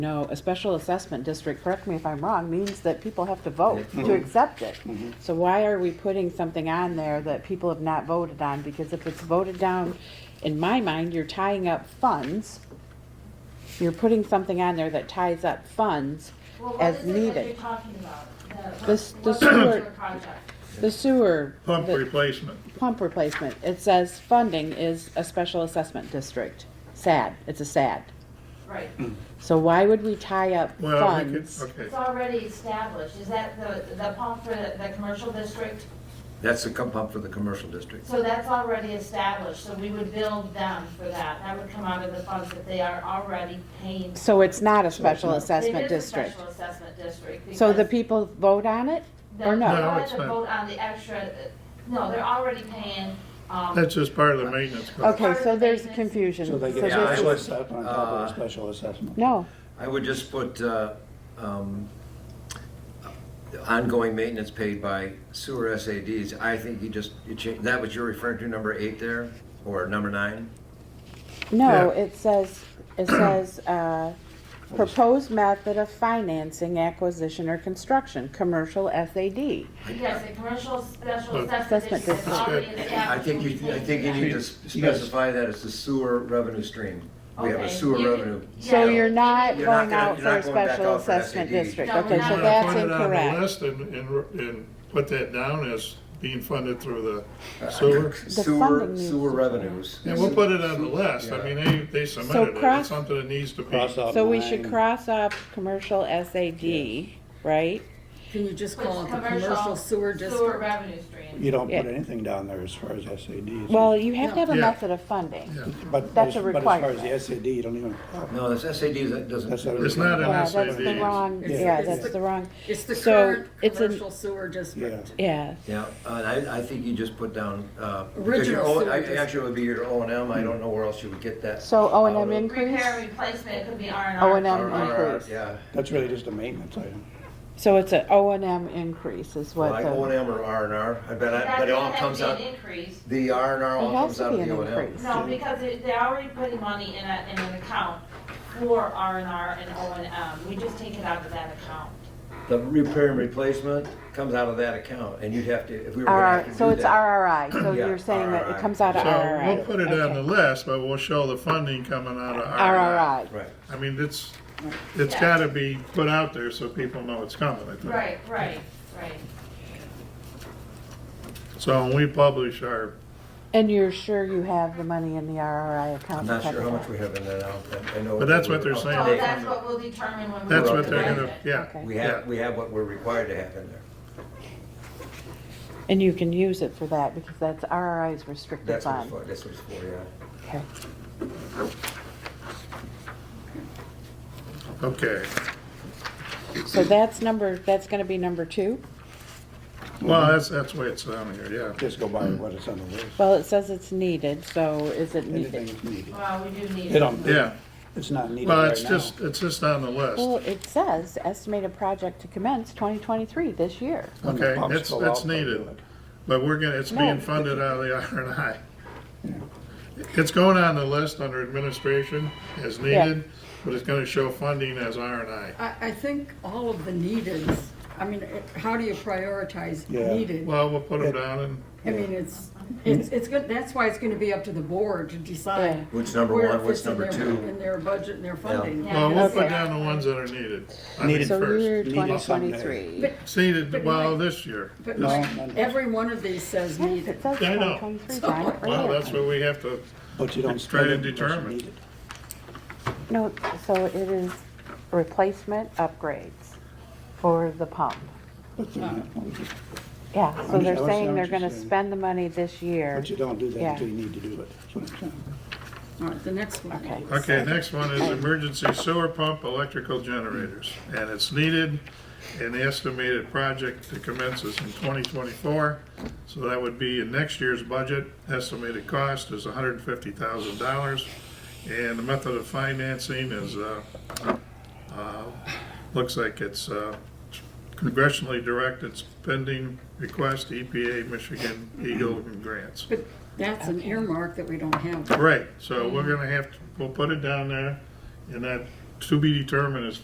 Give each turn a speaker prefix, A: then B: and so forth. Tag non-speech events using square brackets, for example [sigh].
A: No, a special assessment district, correct me if I'm wrong, means that people have to vote to accept it.
B: Mm-hmm.
A: So why are we putting something on there that people have not voted on? Because if it's voted down, in my mind, you're tying up funds. You're putting something on there that ties up funds
C: Well, what
A: as
C: is it that you're
A: needed.
C: talking about? The-
A: The s-
C: what-
A: the
C: what particular
A: sewer-
C: project?
A: The sewer,
B: Pump
A: the
B: replacement.
A: pump replacement, it says funding is a special assessment district. Sad, it's a sad.
C: Right,
A: So why would we tie up
B: Well, we could,
A: funds?
B: okay.
C: it's already established, is that the, the pump for the, the commercial district?
D: That's the co- pump for the commercial district.
C: So that's already established, so we would build them for that, that would come out of the funds that they are already paying.
A: So it's not a special
C: It
A: assessment
C: is a
A: district.
C: Special assessment district.
A: So the
C: because
A: people vote on it or
C: the-
B: No,
A: no?
C: they'll have
B: it's
C: to
B: not.
C: vote on the extra, uh, no, they're already paying, um.
B: That's just part of the maintenance. cost.
A: Okay, so there's confusion.
E: So they
A: So
E: get a
D: Yeah,
A: this
E: special
A: is-
D: would-
E: assessment on top of
D: uh,
E: a special assessment.
A: No,
D: I would just put uh, um, the ongoing maintenance paid by sewer SADs. I think you just, you change, that what you're referring to, number eight there, or number nine?
A: no,
B: Yeah.
A: it says, it says, uh, proposed method of financing acquisition or construction, commercial SAD.
C: Yes, the commercial special
B: Look.
C: assessment
A: Assessment
C: district is
A: district.
C: already
D: I
C: established.
D: think you, I think you need to specify that it's the sewer revenue stream. We have a
C: Okay,
D: sewer
C: you-
D: revenue.
A: So
C: Yeah.
A: you're not
D: You're not
A: going
D: gonna-
A: out
D: you're
A: for a
D: not going back
A: special
D: out for
A: assessment
D: SAD.
A: district.
C: No,
A: Okay,
C: we're
A: so
C: not.
A: that's
B: Put it on the
A: incorrect.
B: list and, and, and put that down as being funded through the sewer.
D: Sewer,
A: funding needs
D: sewer
A: to-
D: revenues.
B: And we'll put it on the list. I
D: Yeah.
B: mean, they, they submitted it.
A: cross-
B: It's something that needs to be.
E: Cross out
A: So we should
E: nine.
A: cross off commercial SAD, right?
F: Can you just
C: Which
F: call it the commercial sewer
C: Sewer
F: district?
C: revenue stream.
E: You don't put
A: Yeah.
E: anything down there as far as SADs.
A: Well, you have to have a
B: Yeah.
A: method of funding.
B: Yeah.
E: But
A: that's
E: as,
A: a
E: but as far as
A: requirement.
E: the SAD, you don't even,
D: No, this SAD that doesn't.
E: That's not-
B: It's not an
A: Yeah,
B: SAD.
A: that's the wrong,
F: It's-
A: yeah,
E: it's
A: that's
F: the-
A: the wrong,
F: It's the
A: So,
F: current
A: it's a-
F: commercial sewer district.
A: yeah.
D: Yeah, and I, I think you just put down, uh, because your
F: Original
D: O,
F: sewer
D: I-
F: district.
D: actually it would be your O and M, I don't know where else you would get that.
A: So O and
D: out
A: M
D: of.
A: increase?
C: Repair, and replacement, it could be R and R.
A: O and M
D: Or- or-
A: increase.
D: Yeah,
E: that's really just a maintenance item.
A: So it's an O and M increase is what uh,
D: like O and
A: the,
D: M or R and R, I bet, I-
C: That
D: but it all
C: doesn't
D: comes
C: have to
D: out,
C: be an increase.
D: the R and R all
A: It has
D: comes
A: to
D: out
A: be
D: of
A: an
D: the O and M.
A: increase.
C: No, because they- they're already putting money in a, in an account for R and R and O and M. We just take it out of that account.
D: The repair and replacement comes out of that account, and you'd have to, if we were
A: All
D: gonna have
A: right,
D: to do that.
A: so it's RRI, so
D: Yeah,
A: you're saying that it
D: RRI.
A: comes out of
B: So
A: RRI.
B: we'll put it on the
A: Okay.
B: list, but we'll show the funding coming out of RRI.
A: RRI.
D: Right,
B: I mean, it's, it's
C: Yeah.
B: gotta be put out there so people know it's coming, I think.
C: Right, right, right.
B: So when we publish our,
A: And you're sure you have the money in the RRI account?
D: I'm
A: to
D: not sure
A: cover
D: how much
A: that?
D: we have in that, I don't- I know.
B: But that's what they're
D: we're-
B: saying.
C: So
B: they-
C: Oh, that's what we'll determine when we.
B: that's
C: look
B: what they're
C: at
B: gonna,
C: it.
B: yeah.
A: Okay.
D: We
B: yeah.
D: have, we have what we're required to have in there.
A: And you can use it for that because that's RRI's restricted
D: That's what it's
A: fund.
D: for, that's what it's for, yeah.
A: Okay.
B: Okay.
A: So that's number, that's gonna be number two?
B: Well, that's, that's the way it's on here, yeah.
E: Just go by what it's on the list.
A: Well, it says it's needed, so is it
E: Anything
A: needed?
E: is needed.
C: Well, we do need.
E: They don't,
B: Yeah,
E: it's not needed
B: well,
E: right
B: it's
E: now.
B: just, it's just on the
A: Well,
B: list.
A: it says estimated project to commence twenty twenty-three this year.
E: When the
B: okay,
E: pumps
B: it's-
E: go
B: it's
E: out, they'll do
B: needed.
E: it.
B: But we're gonna, it's
A: No.
B: being funded out of the [laughs] R and I. It's going on the list under administration as
A: Yeah.
B: needed, but it's gonna show funding as R and I.
F: I, I think all of the neededs, I mean, it- how do you prioritize
E: Yeah.
F: needed?
B: Well, we'll put them down and,
F: I mean, it's, it's, it's good, that's why it's gonna be up to the board to
A: Yeah.
F: decide.
D: Which number
F: where it
D: one, what's
F: fits in
D: number
F: their-
D: two?
F: In their budget and their funding.
C: Yeah.
B: well, we'll put
A: Okay.
B: down the ones that are needed. I mean,
E: Needed.
A: So
B: first.
A: year twenty
E: needed someday.
A: twenty-three.
F: But,
B: It's needed,
F: But
B: well,
F: Mike-
B: this year.
F: but
E: No,
F: Mike,
E: no, no.
F: every one of these says
A: Yes,
F: needed.
A: it says
B: I
A: twenty
B: know.
A: twenty-three, John, it
B: Well,
A: right
B: that's
A: here.
B: what we have to,
E: But you don't
B: It's trying
E: spend
B: to
E: it unless
B: determine.
E: you need it.
A: No, so it is replacement upgrades for the pump.
E: But they're not-
A: Yeah, so
E: Understand-
A: they're
E: understand
A: saying
E: what
A: they're
E: you're
A: gonna
E: saying.
A: spend the money this year.
E: But you don't do that
A: Yeah.
E: until you need to do it. That's what I'm saying.
F: All right, the next one.
A: Okay.
B: okay, next one is emergency sewer pump electrical generators. And it's needed, and the estimated project to commence is in twenty twenty-four. So that would be in next year's budget. Estimated cost is hundred and fifty thousand dollars. And the method of financing is, uh, uh, looks like it's, uh, congressionally directed spending request, EPA, Michigan, Eagle, and grants.
F: But that's an earmark that we don't have.
B: Right, so we're gonna have, to we'll put it down there, and that, to be determined as